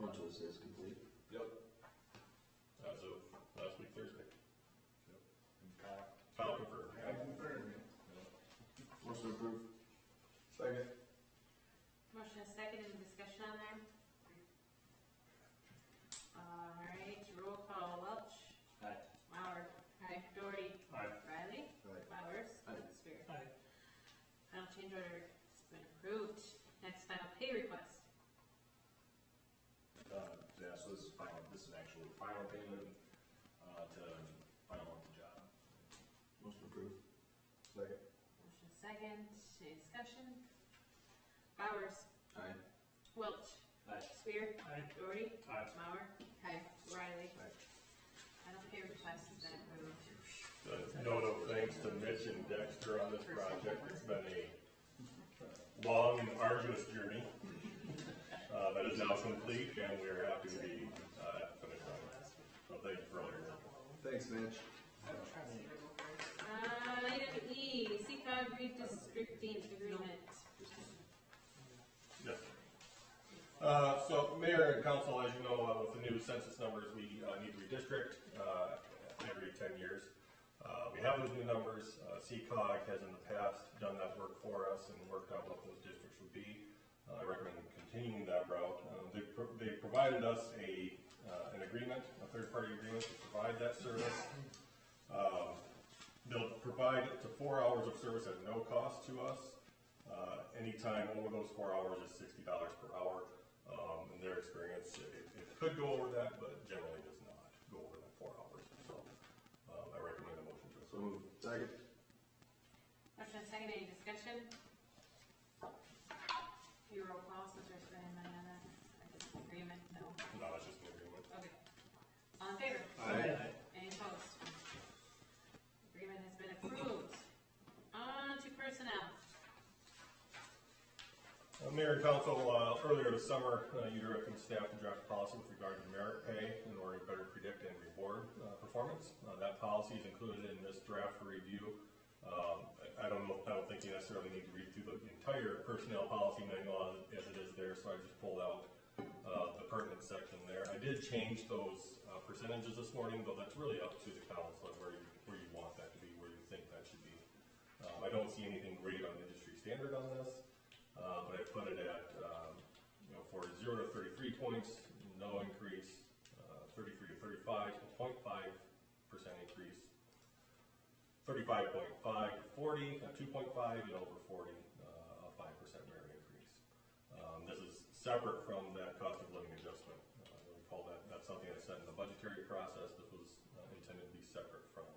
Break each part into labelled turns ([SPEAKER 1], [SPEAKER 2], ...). [SPEAKER 1] Mitchell says complete.
[SPEAKER 2] Yep.
[SPEAKER 3] As of last week Thursday. Kyle confirmed.
[SPEAKER 2] I confirm it.
[SPEAKER 1] Motion approved.
[SPEAKER 2] Second.
[SPEAKER 4] Motion is second, any discussion on there? Uh, All right, roll call, Welch.
[SPEAKER 1] Aye.
[SPEAKER 4] Mauer. Aye. Doherty.
[SPEAKER 3] Aye.
[SPEAKER 4] Riley.
[SPEAKER 1] Aye.
[SPEAKER 4] Bowers.
[SPEAKER 1] Aye.
[SPEAKER 4] Spear. Final change order has been approved. Next final pay request.
[SPEAKER 3] Uh, yeah, so this is final, this is actual final payment, uh, to final the job.
[SPEAKER 1] Motion approved. Second.
[SPEAKER 4] Motion is second, any discussion? Bowers.
[SPEAKER 1] Aye.
[SPEAKER 4] Welch.
[SPEAKER 1] Aye.
[SPEAKER 4] Spear. Doherty.
[SPEAKER 3] Aye.
[SPEAKER 4] Mauer. Aye. Riley.
[SPEAKER 1] Aye.
[SPEAKER 4] Final pay request has been approved.
[SPEAKER 3] A Note of thanks to Mitch and Dexter on this project. It's been a long and arduous journey. Uh, that is now complete and we are happy to be, uh, at the finish line. So thank you for all your work.
[SPEAKER 1] Thanks, Mitch.
[SPEAKER 4] Uh, item E, CCOG redistricting agreement.
[SPEAKER 3] Yes. Uh, so Mayor and Council, as you know, uh, with the new census numbers, we, uh, need to redistrict, uh, every ten years. Uh, we have those new numbers, uh, CCOG has in the past done that work for us and worked out what those districts would be. Uh, I recommend continuing that route. Uh, they, pro- they provided us a, uh, an agreement, a third-party agreement to provide that service. Um, They'll provide up to four hours of service at no cost to us. Uh, Anytime over those four hours is sixty dollars per hour. Um, In their experience, it, it could go over that, but generally does not go over that four hours. So uh, I recommend a motion to
[SPEAKER 1] So
[SPEAKER 3] approve.
[SPEAKER 1] moved. Second.
[SPEAKER 4] Motion and second, any discussion? Your roll call, since there's been a minute on that, agreement, no,
[SPEAKER 3] No, it's just an agreement.
[SPEAKER 4] okay. All in favor?
[SPEAKER 1] Aye.
[SPEAKER 4] Any opposed? Agreement has been approved. On to personnel.
[SPEAKER 3] Uh, Mayor and council, uh, earlier this summer, uh, you directed staff to draft a policy with regard to merit pay in order to better predict and reward uh, performance. Uh, That policy is included in this draft for review. Um, I I don't know, I don't think you necessarily need to read through the entire personnel policy manual as- as it is there, so I just pulled out uh, the pertinent section there. I did change those uh, percentages this morning, though that's really up to the council where you, where you want that to be, where you think that should be. Uh, I don't see anything great on industry standard on this. Uh, but I put it at, um, you know, for zero to thirty-three points, no increase, uh, thirty-three to thirty-five, a point five percent increase. Thirty-five point five to forty, a two point five, and over forty, uh, a five percent merit increase. Um, this is separate from that cost of living adjustment. Uh, we call that, that's something that's set in the budgetary process that was uh, intended to be separate from,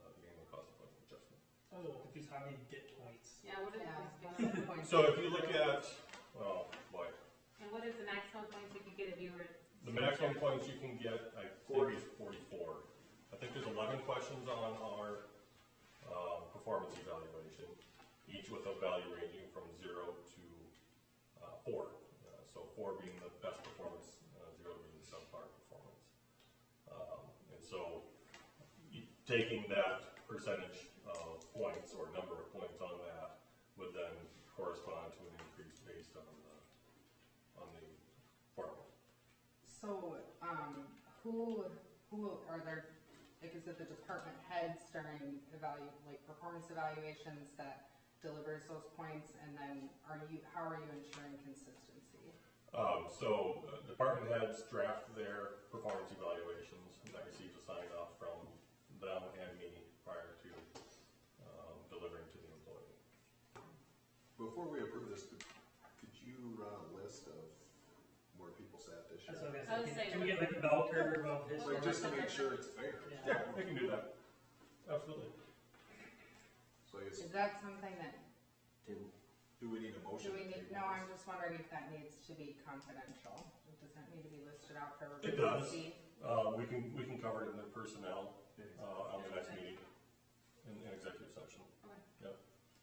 [SPEAKER 3] uh, the annual cost of living adjustment.
[SPEAKER 5] I was a little confused Oh, how do you get points?
[SPEAKER 4] Yeah, what are
[SPEAKER 6] Yeah.
[SPEAKER 4] the maximum points?
[SPEAKER 3] So if you look at, well, boy,
[SPEAKER 4] And what is the maximum points you could get if you were?
[SPEAKER 3] The maximum points you can get, I think, is forty-four. I think there's eleven questions on our, um, performance evaluation, each with a value ranging from zero to, uh, four. Uh, So four being the best performance, uh, zero being the subpar performance. Um, and so, y- taking that percentage of points or number of points on that would then correspond to an increase based on the, on the formula.
[SPEAKER 6] So, um, who, who are there, like, is it the department heads during evalu, like, performance evaluations that delivers those points, and then are you, how are you ensuring consistency?
[SPEAKER 3] Um, so, uh, department heads draft their performance evaluations, and that receives a sign off from them and me prior to, um, delivering to the employee.
[SPEAKER 7] Before we approve this, could could you run a list of where people sat this
[SPEAKER 5] That's what
[SPEAKER 7] year?
[SPEAKER 4] I was
[SPEAKER 5] I was thinking.
[SPEAKER 4] saying-
[SPEAKER 5] Can we get like a bell curve of this?
[SPEAKER 7] Like, just to make sure it's fair.
[SPEAKER 5] Yeah.
[SPEAKER 3] We can do that. Absolutely.
[SPEAKER 7] So it's,
[SPEAKER 6] Is that something that,
[SPEAKER 1] Table.
[SPEAKER 7] do we need a
[SPEAKER 6] do
[SPEAKER 7] motion?
[SPEAKER 6] we
[SPEAKER 7] to
[SPEAKER 6] need,
[SPEAKER 7] table
[SPEAKER 6] no, I'm just
[SPEAKER 7] this?
[SPEAKER 6] wondering if that needs to be confidential, It does that need to be listed out for
[SPEAKER 3] It
[SPEAKER 6] everybody to
[SPEAKER 3] does.
[SPEAKER 6] see?
[SPEAKER 3] Uh, we can, we can cover it in the personnel, uh, on the next meeting, in, in executive session.
[SPEAKER 4] Okay.
[SPEAKER 3] Yep.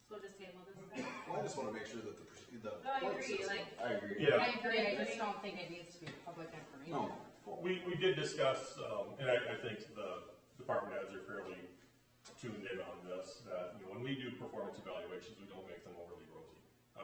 [SPEAKER 4] So we'll just table this.
[SPEAKER 7] Well, I just wanna make sure that the, proce- the.
[SPEAKER 4] No, I
[SPEAKER 7] point
[SPEAKER 4] agree,
[SPEAKER 7] system-
[SPEAKER 4] like,
[SPEAKER 1] I agree.
[SPEAKER 3] Yeah.
[SPEAKER 6] I agree, I just don't think it needs to be public information.
[SPEAKER 1] No.
[SPEAKER 3] We, we did discuss, um, and I, I think the department heads are fairly tuned in on this, that, you know, when we do performance evaluations, we don't make them overly